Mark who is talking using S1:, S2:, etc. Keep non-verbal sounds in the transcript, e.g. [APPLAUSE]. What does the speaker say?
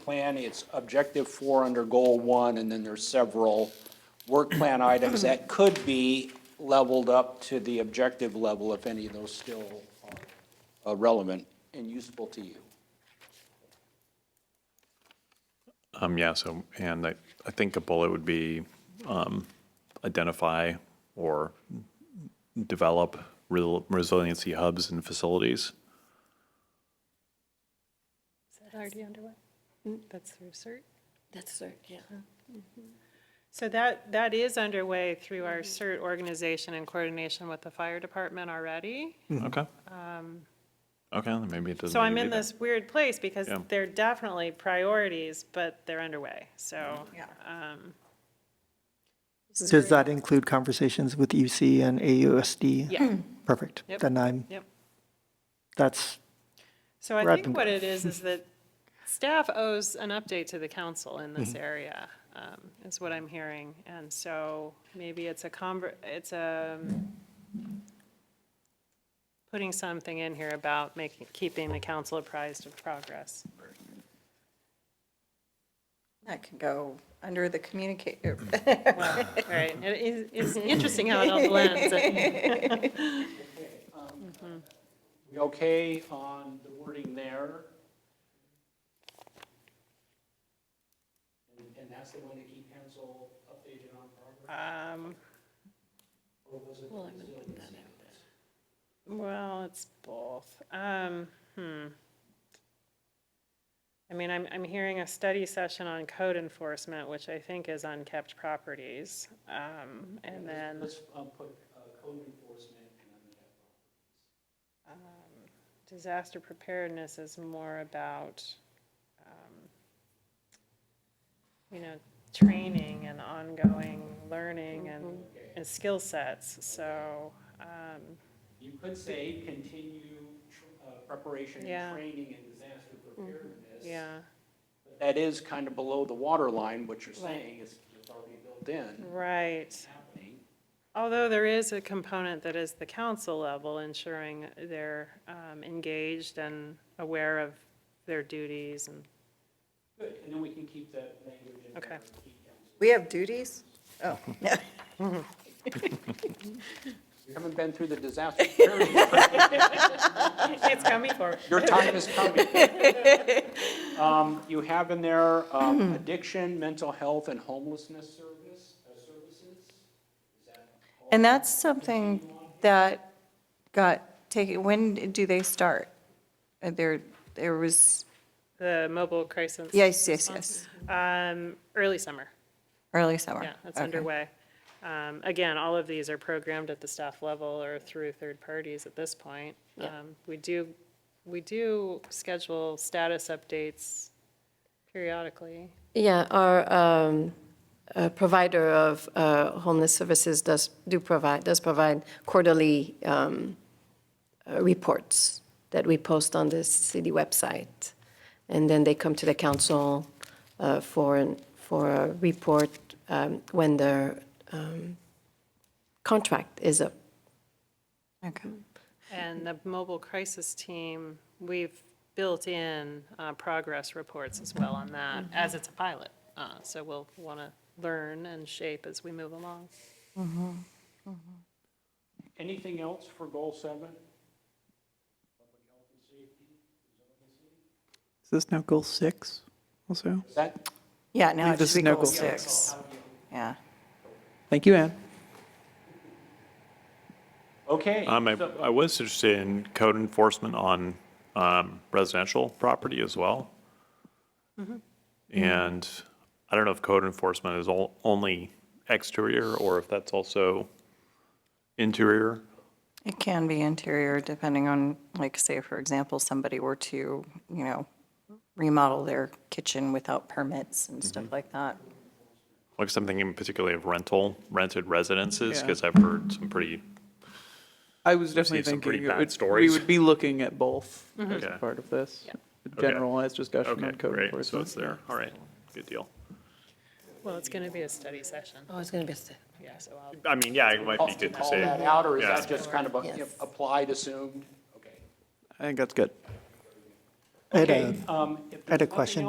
S1: plan, it's objective four under goal one, and then there's several work plan items that could be leveled up to the objective level if any of those still are uh, relevant and useful to you.
S2: Um, yeah, so, and I, I think a bullet would be, um, identify or develop real resiliency hubs and facilities.
S3: Is that already underway? That's through CERT?
S4: That's cert, yeah.
S3: So that, that is underway through our
S2: Mm-hmm.
S3: CERT organization in coordination with the fire department already.
S2: Okay. Okay, then maybe it doesn't.
S3: Mm-hmm. Um, So
S2: need
S3: I'm
S2: to be
S3: in
S2: there.
S3: this weird place because
S2: Yeah.
S3: they're definitely priorities, but they're underway, so. um,
S5: Does that include conversations with UC and AUSD?
S1: Hmm.
S3: Yeah,
S5: Perfect.
S3: Yep.
S5: Then I'm,
S3: yep.
S5: that's,
S3: So I
S5: We're at
S3: think
S5: the-
S3: what it is, is that staff owes an update to the council in this area, um, is what I'm hearing. And so maybe it's a conver, it's a, um, putting something in here about making, keeping the council apprised of progress.
S4: That can go under the er, communicator.
S3: Well, right, it is, it's interesting how it all blends.
S1: um, We okay on the wording there? And- And that's the one to keep pencil updated on progress?
S3: Um,
S1: Or was it resiliency?
S3: Well, it's both. Um, hmm. I mean, I'm, I'm hearing a study session on code enforcement, which I think is on kept properties. Um, and then,
S1: Let's um, put uh, code enforcement and then that.
S3: disaster preparedness is more about, um, you know, training and ongoing learning and, and skill sets, so, um,
S1: You could say continue tr- uh, preparation
S3: Yeah.
S1: and training and disaster preparedness.
S3: yeah,
S1: But That is kind of below the water line, what you're
S4: Right.
S1: saying is it's already built in,
S3: Mm. right.
S1: happening.
S3: Although there is a component that is the council level ensuring they're um, engaged and aware of their duties and,
S1: Good, and then we can keep that language in
S3: Okay.
S1: there. and keep council.
S4: We have duties? Oh, yeah.
S1: You haven't been through the
S3: [LAUGHS]
S1: disaster preparedness.
S3: it's coming for,
S1: Your time is
S3: [LAUGHS]
S1: coming. Um, You have in there
S3: [CLEARS THROAT]
S1: um, addiction, mental health, and homelessness service, uh, services.
S4: And that's something that got taken, when do they start? Uh, There, there was,
S3: the mobile crisis.
S4: yes, yes, yes,
S3: Um, Early summer,
S4: early summer.
S3: yeah, that's
S4: Okay.
S3: underway. Um, Again, all of these are programmed at the staff level or through third parties at this point.
S4: Yeah.
S3: Um, We do, we do schedule status updates periodically.
S6: Yeah, our um, uh, provider of uh, homeless services does, do provide, does provide quarterly um, uh, reports that we post on the city website. And then they come to the council uh, for, an- for a report um, when their um, contract is up.
S4: Okay.
S3: And the mobile crisis team, we've built in uh, progress reports as well on that, as it's a pilot. Uh, So we'll want to learn and shape as we move along.
S1: Anything else for goal seven?
S7: Is this now goal six also?
S1: Is that,
S4: Yeah, now it
S7: Leave this
S4: should be
S7: no
S4: goal
S7: goal.
S4: six. Yeah.
S7: Thank you, Anne.
S1: okay.
S2: Um, I,
S1: so-
S2: I was interested in code enforcement on, um, residential property as well.
S3: Mm-hmm.
S2: And I don't know if code enforcement is all, only exterior or if that's also interior.
S4: It can be interior, depending on, like, say, for example, somebody were to, you know, remodel their kitchen without permits and stuff like that.
S2: Like something in particularly of rental, rented residences, because I've heard some pretty,
S7: I was
S2: see
S7: definitely
S2: some pretty
S7: thinking it
S2: bad
S7: would- we
S2: stories.
S7: would be looking at both as
S2: Okay.
S7: part of this. A
S2: Okay.
S7: Generalized discussion
S2: okay,
S7: on code
S2: great, so
S7: enforcement.
S2: it's there, all right, good deal.
S3: Well, it's going to be a study session,
S6: Oh, it's going to be a step.
S3: yeah, so I'll,
S2: I mean, yeah, it might be
S1: Off
S2: good to
S1: call
S2: say.
S1: that out, or is
S2: Yeah.
S1: that just kind of a-
S6: Yes.
S1: applied, assumed? Okay.
S7: I think that's good.
S5: I had
S1: Okay,
S5: a-
S1: um, if
S5: I had a
S1: there's nothing
S5: question.